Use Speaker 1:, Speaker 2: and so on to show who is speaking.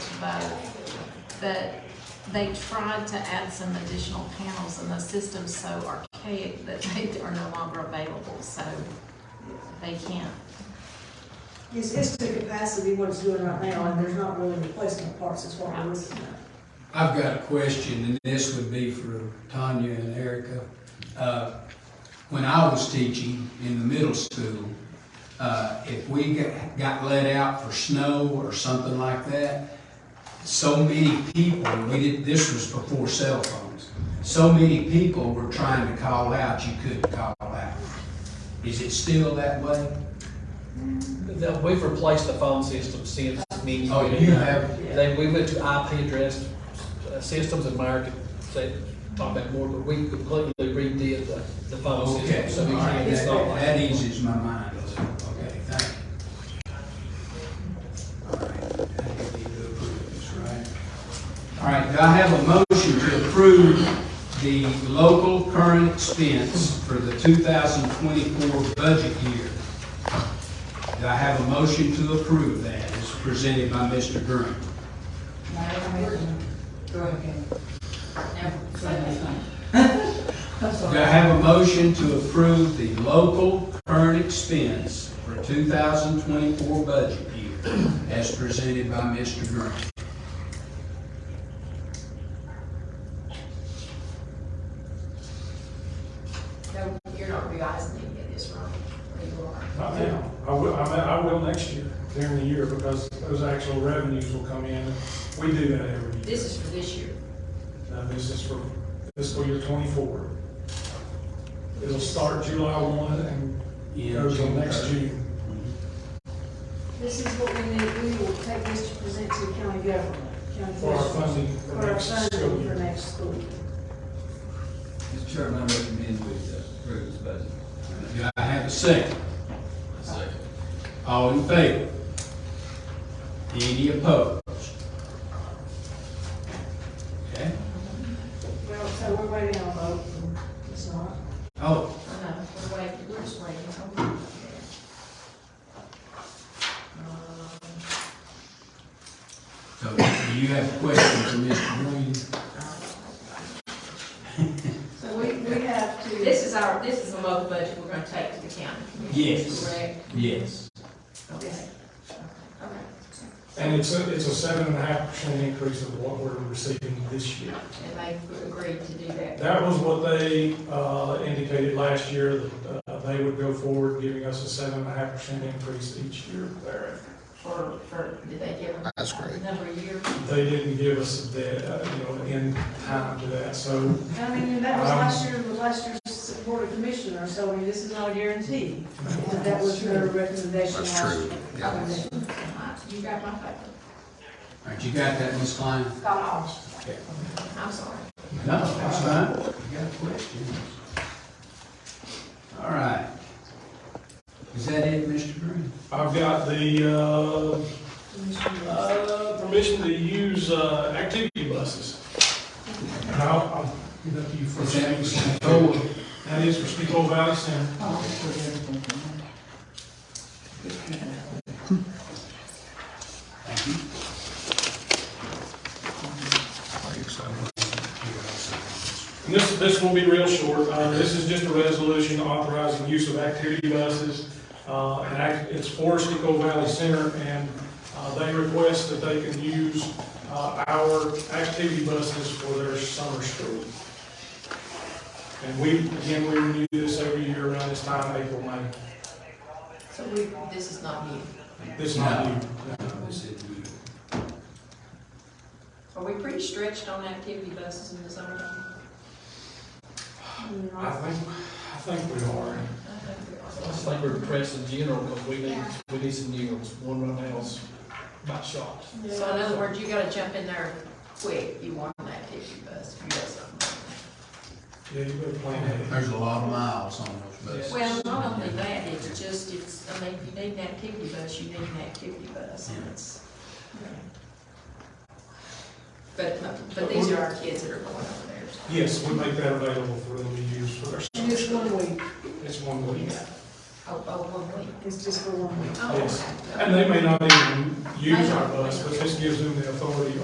Speaker 1: both. But they tried to add some additional panels and the system's so archaic that they are no longer available, so they can't.
Speaker 2: It's, it's the capacity what it's doing right now, and there's not really replacement parts as far as we're concerned.
Speaker 3: I've got a question, and this would be for Tanya and Erica. Uh, When I was teaching in the middle school, uh, if we got- got let out for snow or something like that, so many people, we did, this was before cell phones, so many people were trying to call out, you couldn't call out. Is it still that way?
Speaker 4: No, We've replaced the phone system since many years.
Speaker 3: Oh, you have?
Speaker 4: They, we went to IP address uh, systems in America, say, talk about more, but we completely redid the, the phone
Speaker 3: Okay,
Speaker 4: system. So we
Speaker 3: all right,
Speaker 4: can't
Speaker 3: that-
Speaker 4: install like.
Speaker 3: that eases my mind, a little. okay, thank you. All right, I need to approve this, right? All right, do I have a motion to approve the local current expense for the 2024 budget year? Do I have a motion to approve that, as presented by Mr. Green? Do I have a motion to approve the local current expense for 2024 budget year as presented by Mr. Green?
Speaker 5: No, you're not revising any of this, right? Or you are?
Speaker 6: Not now. I will, I mean, I will next year, during the year, because those actual revenues will come in. We do that every year.
Speaker 5: This is for this year.
Speaker 6: Now, this is for fiscal year twenty-four. It'll start July one and go till next June.
Speaker 2: This is what we need, we will take this to present to the county government, county
Speaker 6: For our
Speaker 2: officials,
Speaker 6: funding for
Speaker 2: for our
Speaker 6: next school
Speaker 2: funding for
Speaker 6: year.
Speaker 2: next school year.
Speaker 7: Mr. Chairman, I recommend we approve this budget.
Speaker 3: Do I have a second?
Speaker 7: Second.
Speaker 3: All in favor? Any opposed? Okay,
Speaker 2: Well, so we're waiting on a vote, and it's not.
Speaker 5: I
Speaker 3: oh,
Speaker 5: know, we're waiting, we're just waiting. Hold on. Um,
Speaker 3: so do you have a question for Mr. Green?
Speaker 2: So we, we have to.
Speaker 5: This is our, this is the local budget we're gonna take to the county.
Speaker 3: Yes.
Speaker 5: Correct?
Speaker 3: Yes.
Speaker 5: Okay. Okay.
Speaker 6: And it's a, it's a seven and a half percent increase of what we're receiving this year.
Speaker 5: And they agreed to do that.
Speaker 6: That was what they, uh, indicated last year, that, uh, they would go forward, giving us a seven and a half percent increase each year thereafter.
Speaker 5: For, for, did they give them? That's great. Number of years.
Speaker 6: they didn't give us the, uh, you know, in time to that, so
Speaker 2: I mean, and that was last year, was last year's board of commissioners, so I mean, this is not a guarantee. But that was their recommendation last year. That's true,
Speaker 5: You got my paper?
Speaker 3: All right, you got that, Ms. Klein?
Speaker 5: Got all. I'm sorry.
Speaker 3: No, that's fine. You got questions? All right. Is that it, Mr. Green?
Speaker 6: I've got the, uh, uh, permission to use, uh, activity buses. And I'll, I'll give that to you
Speaker 3: Is
Speaker 6: first.
Speaker 3: that Mr. Cole?
Speaker 6: That is for Steamboat Valley Center. And this, this will be real short. Uh, this is just a resolution authorizing use of activity buses. Uh, and act- it's for Sticko Valley Center and, uh, they request that they can use, uh, our activity buses for their summer school. And we, again, we renew this every year around this time, April, May.
Speaker 5: So we, this is not new.
Speaker 6: This is not new.
Speaker 3: Is it you?
Speaker 5: Are we pretty stretched on activity buses in the summer?
Speaker 6: I think, I think we
Speaker 5: I
Speaker 6: are.
Speaker 5: think we are.
Speaker 4: I just think we're depressed in general, because we need, we need some new ones. One right now's about shot.
Speaker 5: So in other words, you gotta jump in there quick, you want an activity bus, if you got something.
Speaker 6: Yeah, you better plan ahead.
Speaker 3: There's a lot of miles on those buses.
Speaker 5: Well, not only that, it's just, it's, I mean, if you need an activity bus, you need an activity bus, and it's. But, but these are our kids that are going over there.
Speaker 6: Yes, we make that available for them to use for their
Speaker 2: And
Speaker 6: summer
Speaker 2: it's
Speaker 6: school.
Speaker 2: one week.
Speaker 6: It's one week.
Speaker 5: Oh, Oh, oh, one week.
Speaker 2: It's just for one week.
Speaker 5: Oh,
Speaker 6: Yes.
Speaker 5: okay.
Speaker 6: And they may not even use our bus, but this gives them the authority